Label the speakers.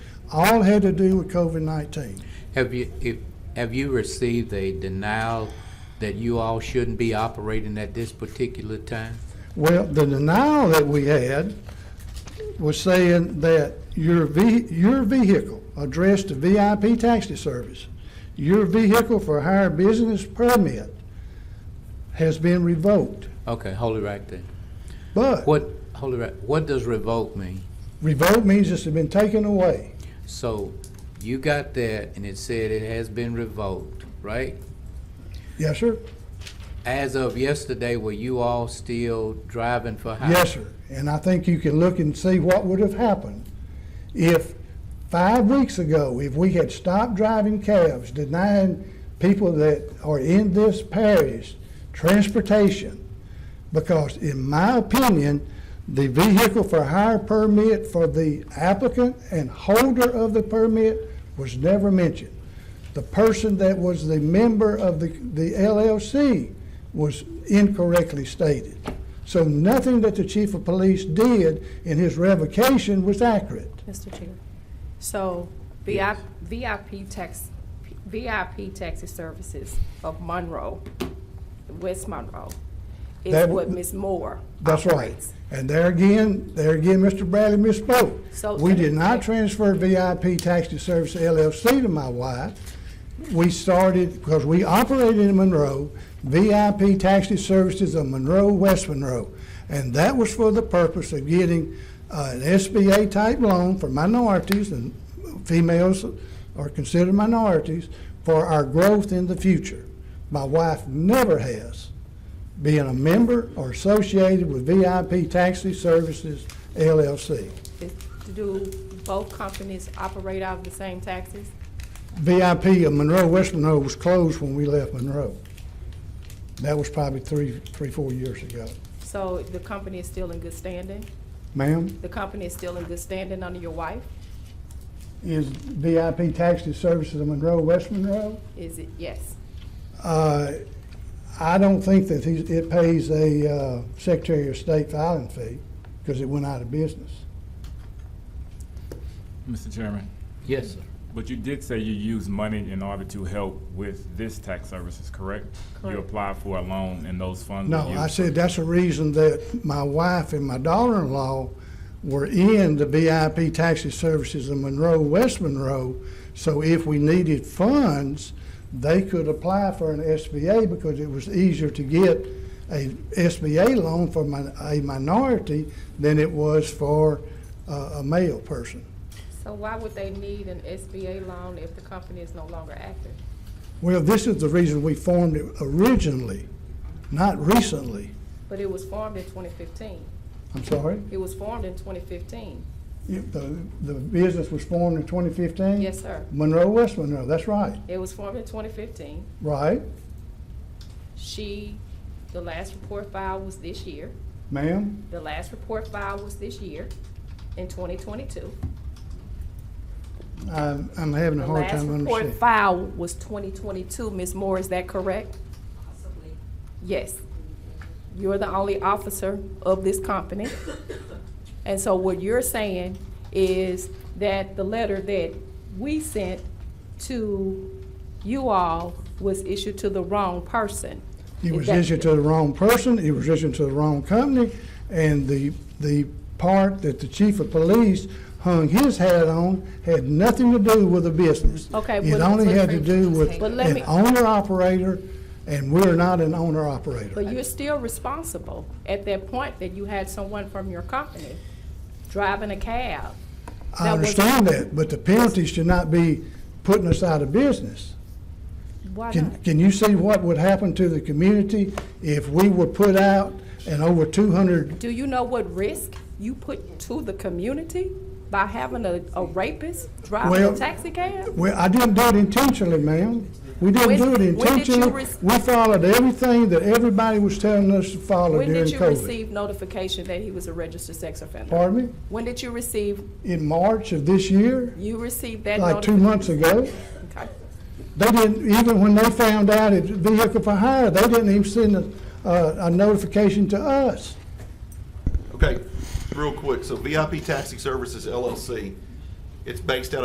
Speaker 1: All had to do with COVID-19.
Speaker 2: Have you, if, have you received a denial that you all shouldn't be operating at this particular time?
Speaker 1: Well, the denial that we had was saying that your ve- your vehicle addressed to VIP taxi service, your vehicle for hire business permit has been revoked.
Speaker 2: Okay, hold it right there.
Speaker 1: But
Speaker 2: What, hold it right, what does revoke mean?
Speaker 1: revoked means it's been taken away.
Speaker 2: So you got that and it said it has been revoked, right?
Speaker 1: Yes, sir?
Speaker 2: As of yesterday, were you all still driving for hire?
Speaker 1: Yes, sir. And I think you can look and see what would have happened if five weeks ago, if we had stopped driving cabs, denying people that are in this parish transportation, because in my opinion, the vehicle for hire permit for the applicant and holder of the permit was never mentioned. The person that was the member of the, the LLC was incorrectly stated. So nothing that the chief of police did in his revocation was accurate.
Speaker 3: Mr. Chair. So VIP, VIP tax, VIP taxi services of Monroe, West Monroe, is
Speaker 1: That-
Speaker 3: what Ms. Moore
Speaker 1: That's right.
Speaker 3: operates.
Speaker 1: And there again, there again, Mr. Bradley
Speaker 3: So-
Speaker 1: misspoke. We did not transfer VIP Taxi Service LLC to my wife. We started, because we operated in Monroe, VIP Taxi Services of Monroe, West Monroe. And that was for the purpose of getting uh, an SBA-type loan for minorities, and females are considered minorities, for our growth in the future. My wife never has being a member or associated with VIP Taxi Services LLC.
Speaker 3: Is- Do both companies operate out of the same taxis?
Speaker 1: VIP of Monroe, West Monroe was closed when we left Monroe. That was probably three, three, four years ago.
Speaker 3: So the company is still in good standing?
Speaker 1: Ma'am,
Speaker 3: The company is still in good standing under your wife?
Speaker 1: is VIP Taxi Services of Monroe, West Monroe?
Speaker 3: Is it, yes?
Speaker 1: Uh, I don't think that he- it pays a uh, Secretary of State filing fee because it went out of business.
Speaker 4: Mr. Chairman,
Speaker 2: Yes, sir.
Speaker 4: but you did say you used money in order to help with this tax services, correct? You
Speaker 3: Correct.
Speaker 4: applied for a loan and those funds were
Speaker 1: No,
Speaker 4: used.
Speaker 1: I said that's the reason that my wife and my daughter-in-law were in the BIP taxi services in Monroe, West Monroe. So if we needed funds, they could apply for an SBA because it was easier to get a SBA loan for min- a minority than it was for uh, a male person.
Speaker 3: So why would they need an SBA loan if the company is no longer active?
Speaker 1: Well, this is the reason we formed it originally, not recently.
Speaker 3: But it was formed in 2015.
Speaker 1: I'm sorry?
Speaker 3: It was formed in 2015.
Speaker 1: It- The the business was formed in 2015?
Speaker 3: Yes, sir.
Speaker 1: Monroe, West Monroe, that's right,
Speaker 3: It was formed in 2015.
Speaker 1: right,
Speaker 3: She, the last report filed was this year.
Speaker 1: ma'am?
Speaker 3: The last report filed was this year in 2022.
Speaker 1: I'm, I'm having a
Speaker 3: The
Speaker 1: hard
Speaker 3: last
Speaker 1: time
Speaker 3: report
Speaker 1: understanding.
Speaker 3: filed was 2022. Ms. Moore, is that correct?
Speaker 5: Possibly.
Speaker 3: Yes. You're the only officer of this company. And so what you're saying is that the letter that we sent to you all was issued to the wrong person.
Speaker 1: It
Speaker 3: Is
Speaker 1: was
Speaker 3: that-
Speaker 1: issued to the wrong person, it was issued to the wrong company, and the, the part that the chief of police hung his hat on had nothing to do with the business.
Speaker 3: Okay,
Speaker 1: It
Speaker 3: but-
Speaker 1: only had to do with
Speaker 3: But let
Speaker 1: an
Speaker 3: me-
Speaker 1: owner-operator, and we're not an owner-operator.
Speaker 3: But you're still responsible at that point that you had someone from your company driving a cab.
Speaker 1: I
Speaker 3: That was-
Speaker 1: understand that, but the penalty should not be putting us out of business.
Speaker 3: Why not?
Speaker 1: Can, can you see what would happen to the community if we were put out and over two hundred?
Speaker 3: Do you know what risk you put to the community by having a, a rapist driving
Speaker 1: Well,
Speaker 3: a taxi cab?
Speaker 1: Well, I didn't do it intentionally, ma'am. We didn't
Speaker 3: When-
Speaker 1: do it
Speaker 3: when did you
Speaker 1: intentionally.
Speaker 3: rec-
Speaker 1: We followed everything that everybody was telling us to follow
Speaker 3: When
Speaker 1: during
Speaker 3: did you
Speaker 1: COVID.
Speaker 3: receive notification that he was a registered sex offender?
Speaker 1: Pardon me?
Speaker 3: When did you receive,
Speaker 1: In March of this year,
Speaker 3: you received that
Speaker 1: like two
Speaker 3: notification?
Speaker 1: months ago, they didn't, even when they found out it was vehicle for hire, they didn't even send a, a a notification to us.
Speaker 6: Okay, real quick, so VIP Taxi Services LLC, it's based out of.